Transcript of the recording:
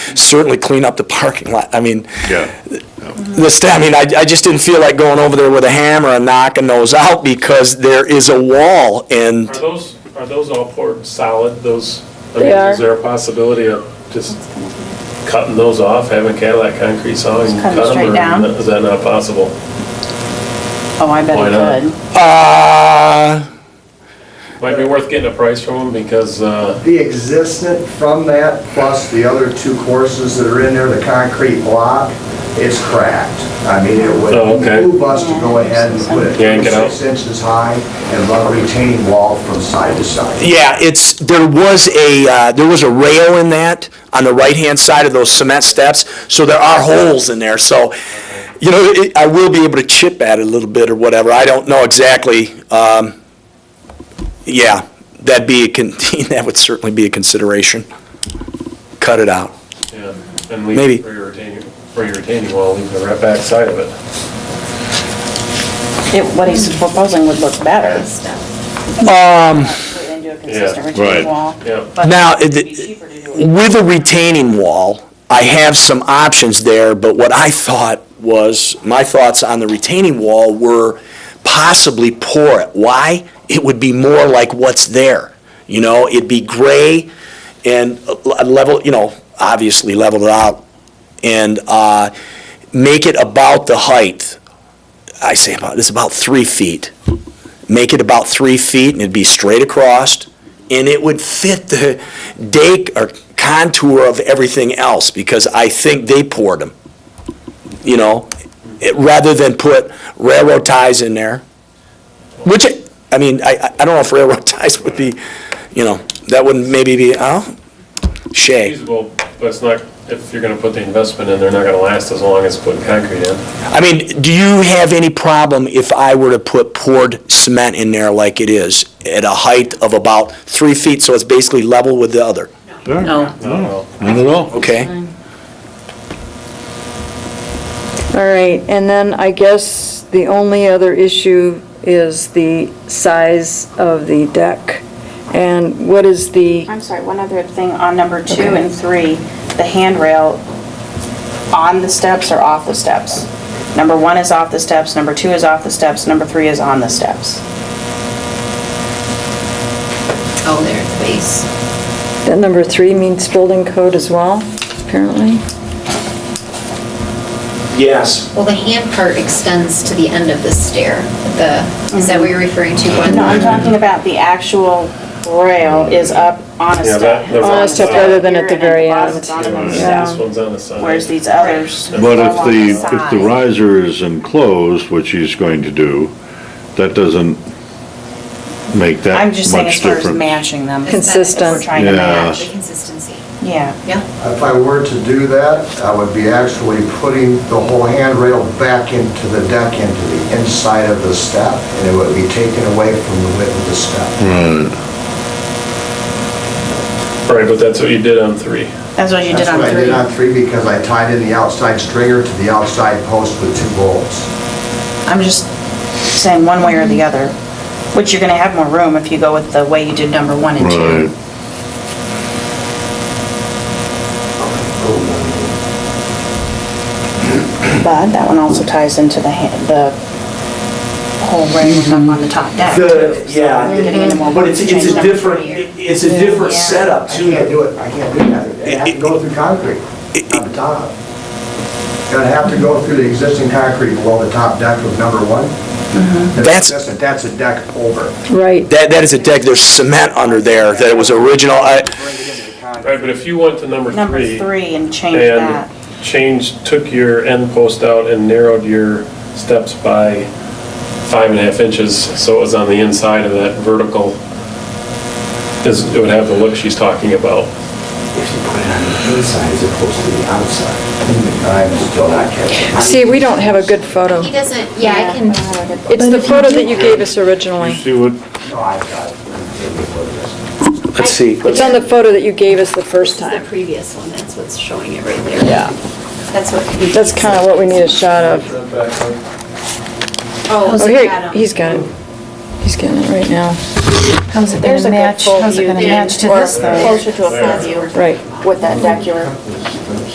certainly clean up the parking lot. I mean, Yeah. the sta I mean, I, I just didn't feel like going over there with a hammer and knocking those out because there is a wall and Are those, are those all poured in solid, those? I They mean, are. Is there a possibility of just cutting those off, having Cadillac concrete saw and Just cut cut 'em them? straight or down? Is that not possible? Oh, I bet Why not? it could. Uh, Might be worth getting a price from them because, uh, The existent from that, plus the other two courses that are in there, the concrete block, it's cracked. I mean, it would Oh, okay. move us to go ahead and put Yeah, and it get out. six inches high and run a retaining wall from side to side. yeah, it's, there was a, uh, there was a rail in that on the right-hand side of those cement steps, so there are holes in there, so, you know, it, I will be able to chip at it a little bit or whatever, I don't know exactly, um, yeah, that'd be, a con- that would certainly be a consideration. Cut it out. yeah, and leave Maybe. it for your retaining, for your retaining wall, leave the right back side of it. It- What he's proposing would look better. Um, Put it Into a consistent right. retaining wall. Yeah. but Now, it'd it- be cheaper to do it With a retaining wall, I have some options there, but what I thought was, my thoughts on the retaining wall were possibly pour it. Why? It would be more like what's there, you know, it'd be gray and uh, level, you know, obviously leveled out, and uh, make it about the height, I say about, it's about three feet. Make it about three feet, and it'd be straight across, and it would fit the dake or contour of everything else, because I think they poured them, you know, it- rather than put railroad ties in there, which, I mean, I, I- I don't know if railroad ties would be, you know, that wouldn't maybe be, oh, Shay. Feasible, but it's not, if you're gonna put the investment in, they're not gonna last as long as putting concrete in. I mean, do you have any problem if I were to put poured cement in there like it is, at a height of about three feet, so it's basically level with the other, No. I don't know. Not at all. okay? All right, and then I guess the only other issue is the size of the deck. And what is the, I'm sorry, one other thing on number two and three, the handrail on the steps or off the steps? Number one is off the steps, number two is off the steps, number three is on the steps. Oh, there, the base. that number three means building code as well, apparently? Yes. Well, the hand part extends to the end of the stair. The, is that what you're referring to? One- No, I'm talking about the actual rail is up on Yeah, a step. that- that's- On a step rather than at the very Here, and end. the bottom's on the Yeah. This step, one's on the side. Whereas these others. But But if go on the- side. side. If the riser is enclosed, which he's going to do, that doesn't make that I'm just saying as much far as difference. matching them. Is that- Consistent. We're trying to Yeah. match, The consistency. yeah. Yeah. If I were to do that, I would be actually putting the whole handrail back into the deck, into the inside of the step, and it would be taken away from the width of the step. Hmm. Right. Right, but that's what you did on three. That's what you did That's on what I did three. on three because I tied in the outside stringer to the outside post with two bolts. I'm just saying one way or the other, which you're gonna have more room if you go with the way you did number one and two. Right. But that one also ties into the, ha- the whole ring up on the top deck. The, yeah, You're getting into more but it's, it's a change. different, it's a different Yeah. setup I too. can't do it, I can't do that. It'd have to go through concrete on the top. It'd have to go through the existing concrete below the top deck of number one. That's- a- That's a deck over. Right. That, that is a deck, there's cement under there, that it was original, I, Bring it into the concrete. Right, but if you went to number Number three. three and change that. And changed, took your end post out and narrowed your steps by five and a half inches, so it was on the inside of that vertical, is, it would have the look she's talking about. If you put it on the inside as opposed to the outside, I'm still not catching. See, we don't have a good photo. He doesn't, yeah, I can, It's the photo that you gave us originally. See what, No, I've got it. What is this? let's see. It's on the photo that you gave us the this first is the time. previous one, that's what's showing it right there. Yeah. That's what. he- That's kind of what we need a shot of. Oh, Oh, so here, Adam. he's got it. He's getting it right now. How's it There's gonna a good match, full how's it view gonna there. match to Or this though? Closer to a front view Right. with that deck you were